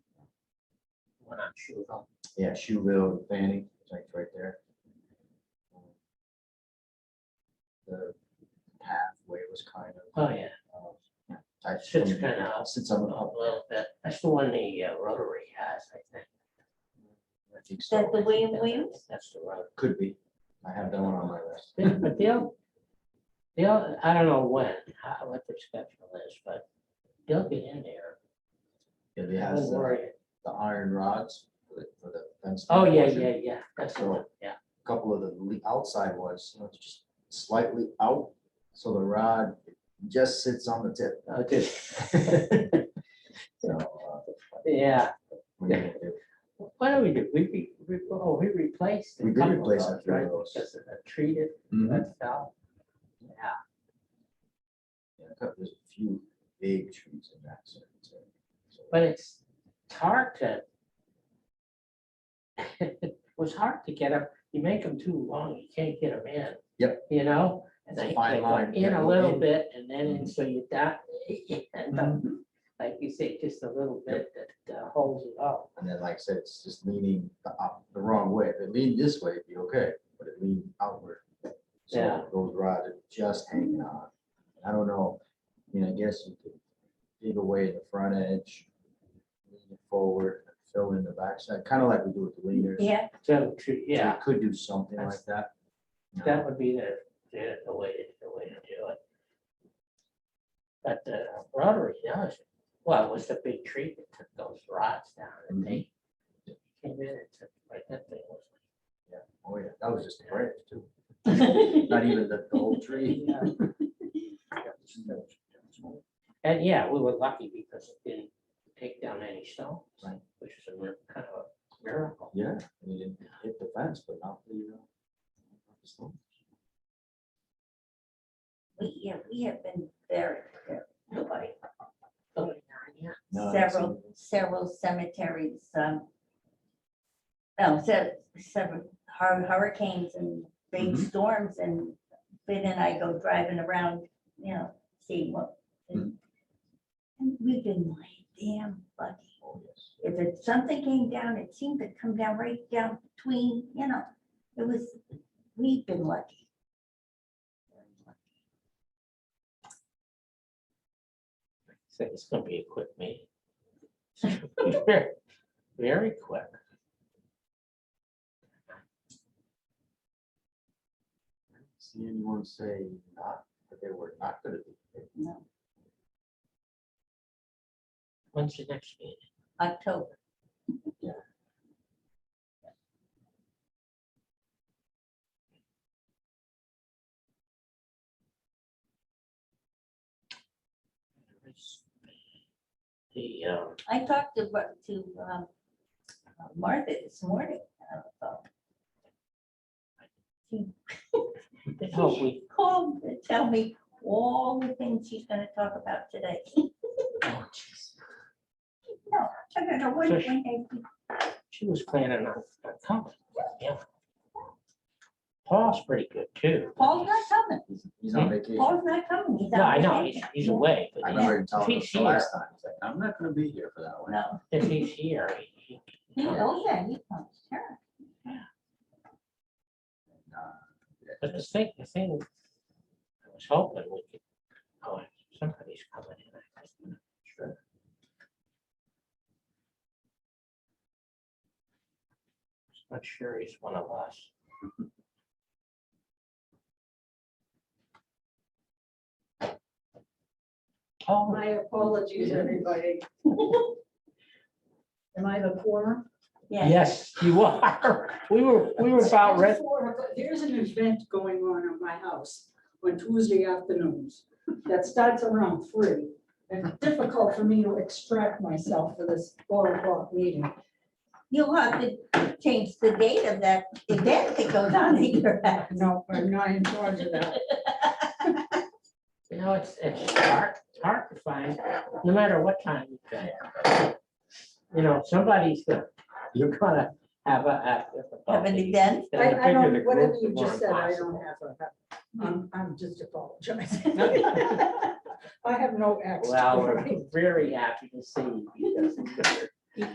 We're not sure. Yeah, Shoeville, and Fanny, it's like right there. The pathway was kind of. Oh, yeah, uh, I Sits kinda up. Sits on a the up. little bit. That's the one the uh, Rotary has, I think. I think that so. the William Williams? That's the road. Could be. I have that one on my list. Yeah, But the, oth- the, oth- I don't know when, how, what the schedule is, but they'll get in there. Yeah, It I has wouldn't the, worry. the iron rods for the- for the fence. Oh, yeah, portion. yeah, yeah, that's the one, yeah. A Couple of the le- outside ones, you know, it's just slightly out, so the rod just sits on the tip. Oh, dude, So, uh, Yeah, we need to- what do we do? We, re- re- oh, we replaced. a We did couple of replace a those, few of right? those. Because of the treated, Mhm. that fell. Yeah, Yeah, a couple- There's a few big trees in that zone. too. So, but it's it's hard to. It was hard to get them, you make them too long, you can't get them in. Yep. You know? and It's a they- fine they go line, In yeah, a little in. Mm-hmm. bit and then, Mhm. and so you die, you end up, like you say, just a little bit that uh, holds it up. And then, like I said, it's just leaning the up, the wrong way. If it leaned this way, it'd be okay, but it leaned outward. Yeah. So those rods are just hanging on. I don't know, I mean, I guess you could dig away the front edge, lean it forward, fill in the backside, kind of like we do with the leaders. Yeah, So, true, yeah, Could do something like That's- that. you know. that would be the, the the way, to- the way to do it. But the Rotary, now is well, it was the big tree that took those rods down and they came in and took, like, that thing was Oh, yeah, that was just a branch too. yeah. Not even the the whole tree. Yeah. And yeah, we were lucky because it didn't take down any stones, Right. which is a mir- kind of a miracle. Yeah, I mean, it hit the fence, but not the, uh, not the stone. We, yeah, we have been very, very- nobody, Oh, yeah, No, I haven't several, seen several cemeteries, um, no, se- several hur- hurricanes and big Mhm. storms and Ben and I go driving around, you know, seeing what. and and We've been like damn lucky. Oh, yes. if it, something came down, it seemed to come down right down between, you know, it was, we've been lucky. So it's gonna be a quick meeting. Very quick. See anyone say not, that they were not gonna do it. No, When's your next meeting? October, The, um, I talked to, Mar- to um, uh, Martha this morning. uh, about- the whole week, Called to tell me all the things she's gonna talk about today. oh, jeez. No, I don't know what, So when she- I- she was planning on on coming. Yeah. Paul's pretty good too. Paul's not coming, He's- He's on vacation. Paul's not coming. He's No, on I know, he's, vacation. he's away, I but remember him telling She- us she the is- last time, he's like, I'm not gonna be here for that one. No, if he's here, he- he he, oh, yeah, he comes, sure. And, uh, yeah, But the thing, the thing, I was hoping we could, oh, somebody's coming in. I think. sure. Not sure he's one of us. Oh, My apologies, everybody. Am I the former? Yeah. yes, you are. We were, we were about ready. There's an event going on at my house on Tuesday afternoons that starts around three. It's difficult for me to extract myself for this four o'clock meeting. You'll have to change the date of that event that goes on in your house. No, I'm not in charge of that. You know, it's, it's hard, it's hard to find, no matter what time you go. You know, somebody's gonna, you're gonna have a. a- a- Have an event? They're gonna I, I figure the don't, whatever groups you are just said, I impossible. don't have a, I'm, I'm just apologizing. I have no access. Well, we're very happy to see you. because